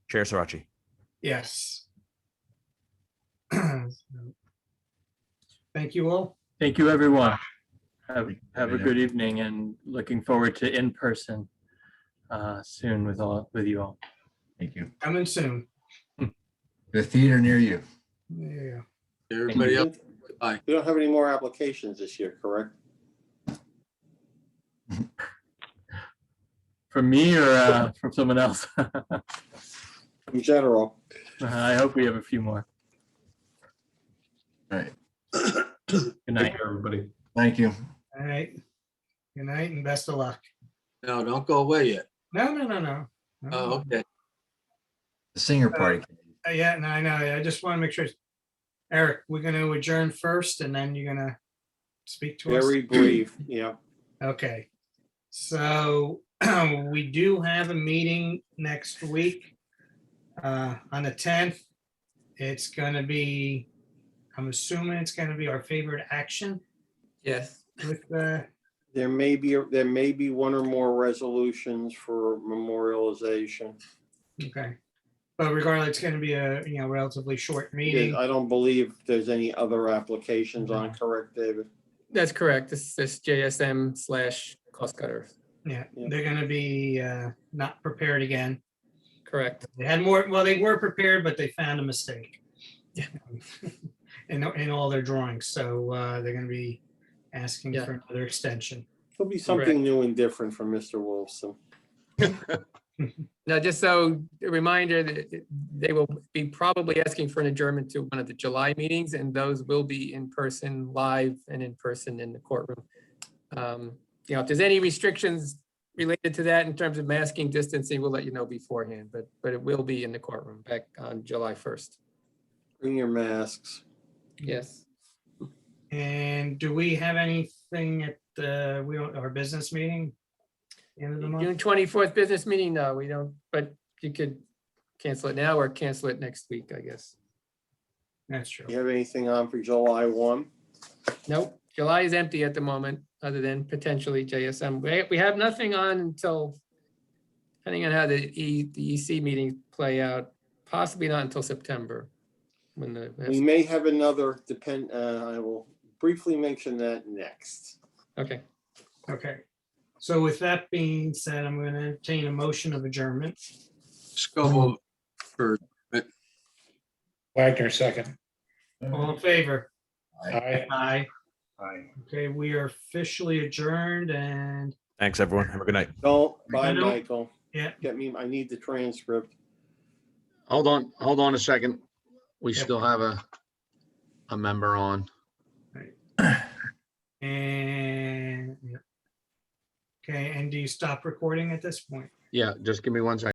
Chair Sarachi. Yes. Thank you all. Thank you, everyone. Have, have a Everybody. good evening and looking forward to in-person uh, soon with all, with you all. Thank you. Coming soon. The theater near you. Yeah. Everybody else, bye. We don't have any more applications this year, correct? From me or uh, from someone else? In general, I hope we have a few more. All right. Good night. everybody. Thank you. All right. Good night and best of luck. No, don't go away yet. No, no, no, no. No, Oh, okay. The singer party. Uh, Yeah, no, I know. I just want to make sure. Eric, we're going to adjourn first and then you're going to speak to us. very brief, yeah. Okay. So we do have a meeting next week uh, on the tenth. It's going to be, I'm assuming it's going to be our favorite action Yes. with uh, the, There may be, there may be one or more resolutions for memorialization. okay. But regardless, it's going to be a, you know, relatively short meeting. I don't believe there's any other applications Mm-hmm. on, correct, David? That's correct. This is JSM slash cost cutter. Yeah, Yeah. they're going to be uh, not prepared again. Correct. They had more, well, they were prepared, but they found a mistake. Yeah. In, in all their drawings, so uh, they're gonna be asking Yeah. for another extension. There'll be something new and different from Mr. Wolfson. Now, just so a reminder that they will be probably asking for an adjournment to one of the July meetings and those will be in person, live and in person in the courtroom. Um, You know, if there's any restrictions related to that in terms of masking distancing, we'll let you know beforehand, but, but it will be in the courtroom back on July 1st. Bring your masks. Yes. And do we have anything at the, we don't, our business meeting? End of the month, June 24th business meeting, no, we don't, but you could cancel it now or cancel it next week, I guess. that's true. You have anything on for July one? Nope, July is empty at the moment, other than potentially JSM. We, we have nothing on until, depending on how the E, the EC meetings play out, possibly not until September. When We the, may have another depend, uh, I will briefly mention that next. okay, Okay, so with that being said, I'm gonna entertain a motion of adjournment. Just go over. Wagner, second. All in favor? Aye. Aye. Aye. Okay, we are officially adjourned and, Thanks, everyone. Have a good night. Don't, bye, I don't- Michael. yeah. Get me, I need the transcript. Hold on, hold on a second. We Yep. still have a, a member on. and. yeah. Okay, and do you stop recording at this point? Yeah, just give me one second.